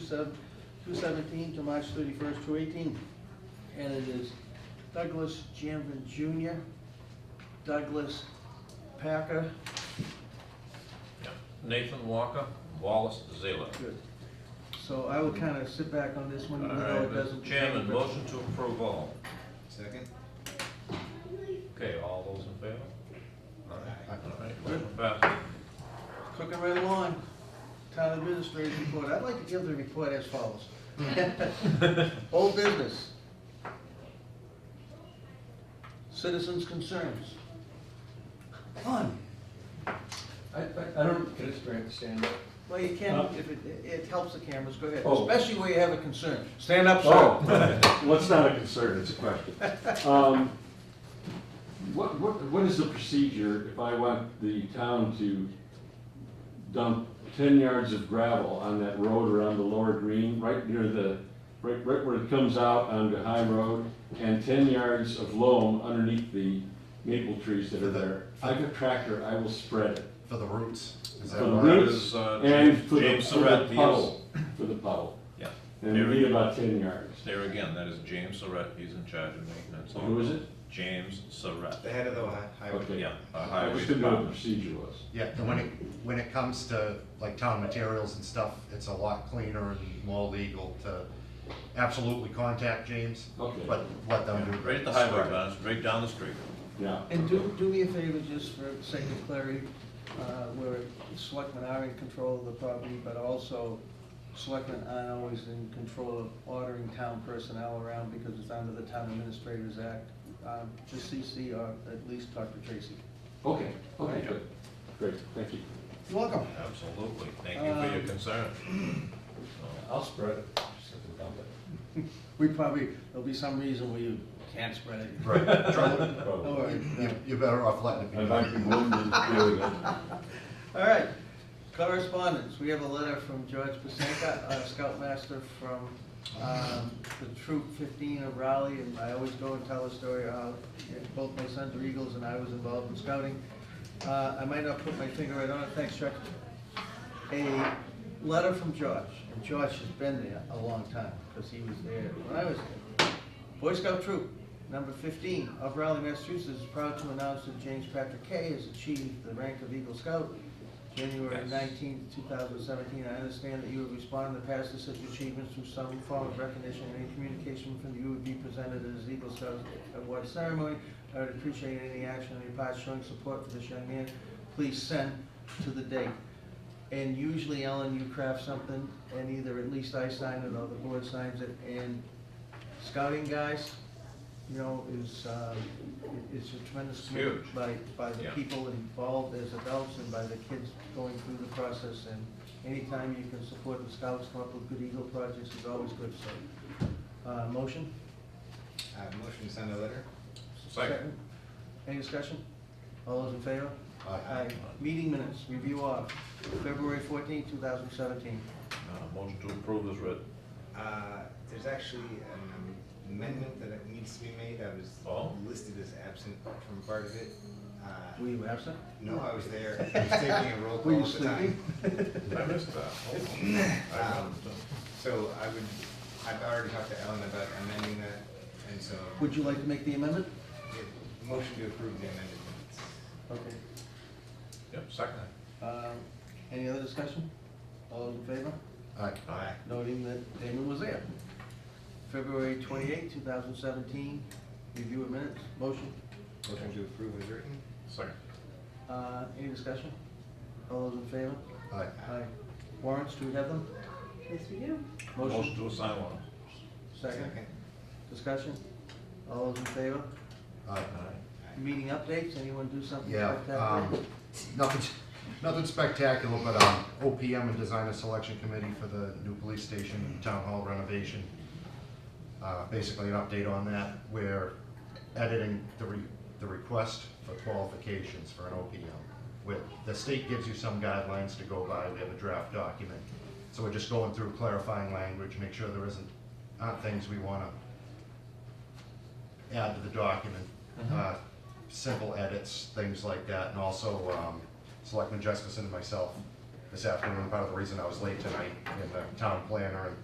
sev- 2017 to March 31st, 2018. And it is Douglas Janvin Jr., Douglas Packer. Yep. Nathan Walker, Wallace Zela. Good. So I will kind of sit back on this one, even though it doesn't. Chairman, motion to approve all. Second? Okay, all those in favor? Aye. All right, motion passes. Cooking right along. Town administrator's report. I'd like to give the report as follows. Old business. Citizens' concerns. None. I, I, I don't get it, straight. stand up. Well, you can, if it, it helps the cameras, go ahead, Oh. especially where you have a concern. Stand up, Oh, sir. well, it's not a concern, it's a question. Um, What, what, what is the procedure if I want the town to dump ten yards of gravel on that road around the lower green, right near the, right, right where it comes out onto High Road, and ten yards of loam underneath the maple trees that are there? If I have a tractor, I will spread it. For the roots? Is that For the why? roots? Is, uh, And for the, James for the Surratt, he is- puddle, for the puddle. Yeah, And we need about ten yards. there again, that is James Surratt, he's in charge of maintenance. Who is it? James Surratt. The head of the hi- highway. Okay. Yeah, uh, I highway just didn't know what the department. procedure was. Yeah, and when it, when it comes to like town materials and stuff, it's a lot cleaner and more legal to absolutely contact James. Okay. But let them do. Right at the highway, man, it's right down the street. Yeah. And do, do me a favor, just for sake of clarity, uh, where selectmen are in control of the property, but also selectmen aren't always in control of ordering town personnel around because it's under the Town Administrators Act. Um, Just CC or at least talk to Tracy. Okay, okay, Yeah. good. Great, thank you. You're Welcome. Absolutely, thank you for your Um, concern. I'll spread it. Just have to dump it. We probably, there'll be some reason where you can't spread it. Right. Try- Don't Probably. worry. you- You're better off letting it be. I might be one minute doing it. All right, correspondence, we have a letter from George Pasenka, uh, Scoutmaster from um, the Troop 15 of Raleigh, and I always go and tell a story of how both my sons are Eagles and I was involved in scouting. Uh, I might not put my finger right on it, thanks Chuck. A letter from George, and George has been there a long time, because he was there when I was there. Boy Scout Troop Number 15 of Raleigh, Massachusetts is proud to announce that James Patrick Kay has achieved the rank of Eagle Scout, January Yes. 19, 2017. I understand that you have responded past to such achievements through some form of recognition and any communication from you would be presented as Eagle Scout Award ceremony. I would appreciate any action on your part showing support for this young man. Please send to the date. And usually, Ellen, you craft something, and either at least I sign it or the board signs it, and scouting guys, you know, is, um, i- is a tremendous commitment Huge. by, by the Yeah. people involved as adults and by the kids going through the process, and anytime you can support the scouts, come up with good Eagle projects is always good, so. Uh, motion? Uh, motion to send a letter? Second. Any discussion? All those in favor? Aye. Meeting minutes, review of, February fourteenth, two thousand seventeen. Uh, Motion to approve is read. Uh, There's actually an amendment that needs to be made. I was Oh. listed as absent from part of it. Uh, Were you absent? No, I was there. I was taking a roll Were call you at the time. sleeping? I missed that. Oh. So I would, I've already talked to Ellen about amending that, and so Would you like to make the amendment? the motion to approve the amended minutes. Okay. Yep, second. Um, Any other discussion? All those in favor? Aye. Aye. Noting that Damon was there. February twenty-eighth, two thousand seventeen, review of minutes, motion. Motion to approve is written. Second. Uh, Any discussion? All those in favor? Aye. Aye. Warrants, do we have them? Yes, we do. Motion Motion, to assign one. second. Discussion? All those in favor? Aye. Meeting updates, anyone do something? Yeah, spectacular? um, nothing, nothing spectacular, but, um, OPM and Designer Selection Committee for the new police station and town hall renovation. Uh, basically an update on that, we're editing the re, the request for qualifications for an OPM. With, the state gives you some guidelines to go by, we have a draft document. So we're just going through clarifying language, make sure there isn't, aren't things we wanna add to the document. Uh, Simple edits, things like that, and also um, Selectman Jessica and myself this afternoon, part of the reason I was late tonight, and the town planner and